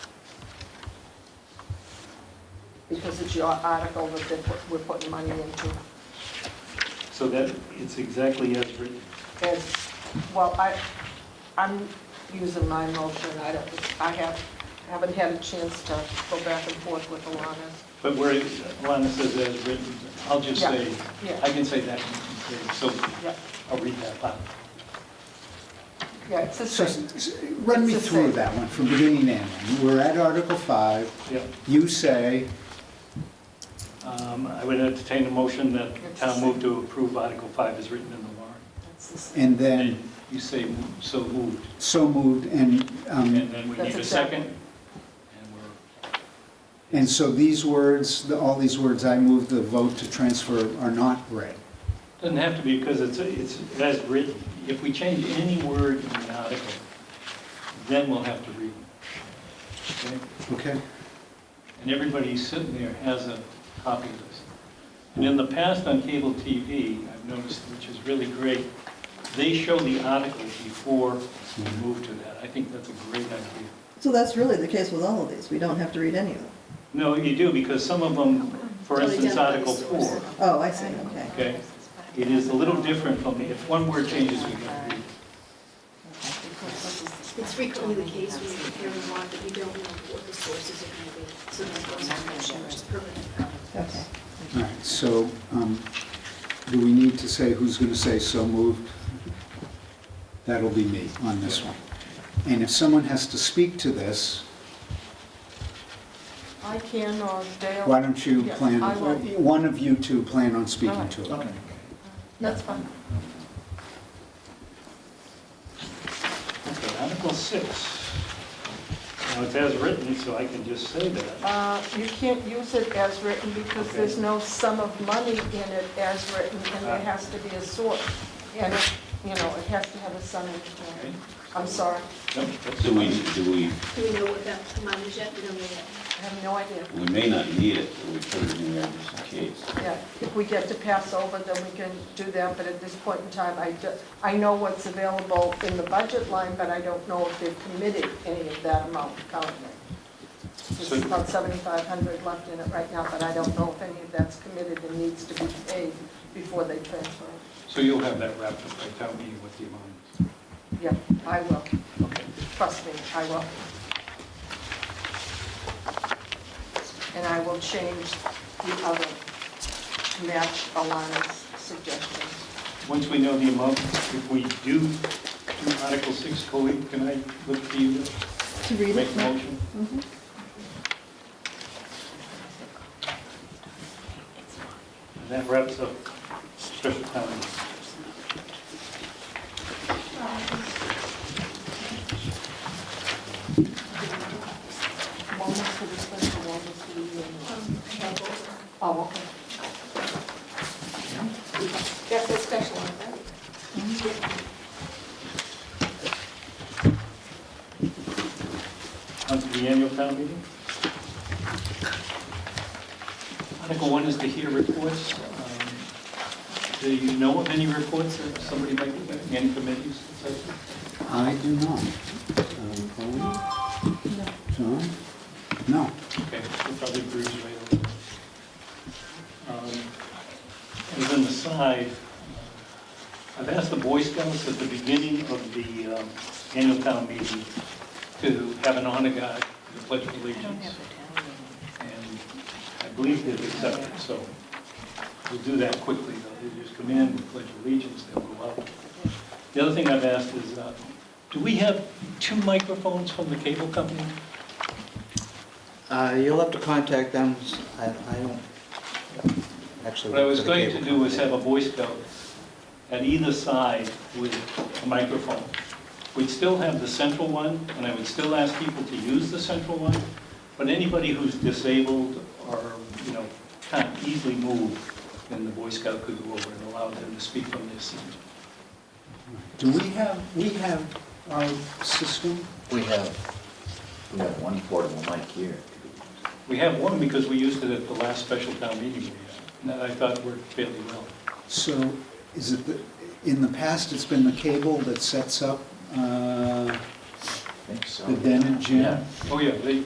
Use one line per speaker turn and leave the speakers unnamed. because it's your article that they're put- we're putting money into.
So that, it's exactly as written.
As, well, I, I'm using my motion, I don't, I have, haven't had a chance to go back and forth with Alana.
But where it- Alana says as written, I'll just
Yeah,
say,
yeah.
I can say that, and you can say- so
Yep,
I'll read that out.
yeah, it's the
So,
same.
s- run me
It's the
through
same.
that one from beginning to end. We're at Article 5.
Yep.
You say,
Um, I would entertain a motion that the town move to approve Article 5 as written in the warrant.
It's the same.
and then,
You say, mo- so moved.
so moved, and,
And
um,
then we
That's
need a
exactly-
second. And we're,
and so these words, the- all these words, I move the vote to transfer are not read.
doesn't have to be because it's, it's as written. If we change any word in the article, then we'll have to read it. Okay?
Okay?
And everybody sitting there has a copy of this. And in the past on cable TV, I've noticed, which is really great, they show the article before we move to that. I think that's a great idea.
So that's really the case with all of these, we don't have to read any of them.
No, you do, because some of them, for instance, Article 4,
Oh, I see, okay.
okay? It is a little different from, the- if one word changes, we gotta read. it.
It's frequently the case when you're preparing law that you don't know what the sources are going to be, so that's why I'm not sure it's permanent.
Okay.
All right, so um, do we need to say who's going to say so moved? That'll be me on this one. And if someone has to speak to this,
I can, or Dale.
why don't you
Yeah,
plan,
I will.
one of you two plan on speaking to
All
it?
Okay.
That's fine.
Okay, Article 6. Now, it's as written, so I can just say that.
Uh, You can't use it as written because
Okay.
there's no sum of money in it as written, and
Uh.
there has to be a source. And, it- you know, it has to have a sum of,
Okay?
I'm sorry,
Yep, that's
Do we,
fine.
do we,
Do we know what that amount is yet? We don't know yet.
I have no idea.
we may not need it, but we put it in there just in case.
Yeah, if we get to pass over, then we can do that, but at this point in time, I, ju- I know what's available in the budget line, but I don't know if they've committed any of that amount currently. There's
So-
about 7,500 left in it right now, but I don't know if any of that's committed and needs to be paid before they transfer. it.
So you'll have that wrapped up by town meeting with the amount.
Yeah, I will,
Okay.
trust me, I will. And I will change the other match allowance suggestions.
Once we know the amount, if we do do Article 6, Colleen, can I look to you to
To read
make
it?
a motion? And that wraps up special town meeting.
One was for the special, one was for the annual.
Um, I have both.
Oh, okay.
That's a special one, right?
On to the annual town meeting. Article 1 is to hear reports. Um, Do you know of any reports that somebody might be, getting, any committees, et cetera?
I do not. Um, Colleen? John? No.
Okay, we'll probably bruise right over it. Um, And then the side, I've asked the Boy Scouts at the beginning of the um, annual town meeting to have an honor guard to pledge allegiance. And I believe they've accepted, so we'll do that quickly. though. They just come in, we pledge allegiance, they'll go out. The other thing I've asked is, uh, do we have two microphones from the cable company?
Uh, You'll have to contact them, I I don't actually...
What I
work
was
for the
going to
cable
do was
company.
have a Boy Scout at either side with a microphone. We'd still have the central one, and I would still ask people to use the central one, but anybody who's disabled or, you know, can't easily move, then the Boy Scout could go over and allow them to speak from their seat.
Do we have, we have our system?
We have, we have one portable mic here.
We have one because we used it at the last special town meeting we had, and that I thought worked fairly well.
So is it, the in the past, it's been the cable that sets up uh,
I think so.
the den and gym?
Yeah.
Oh, yeah, they,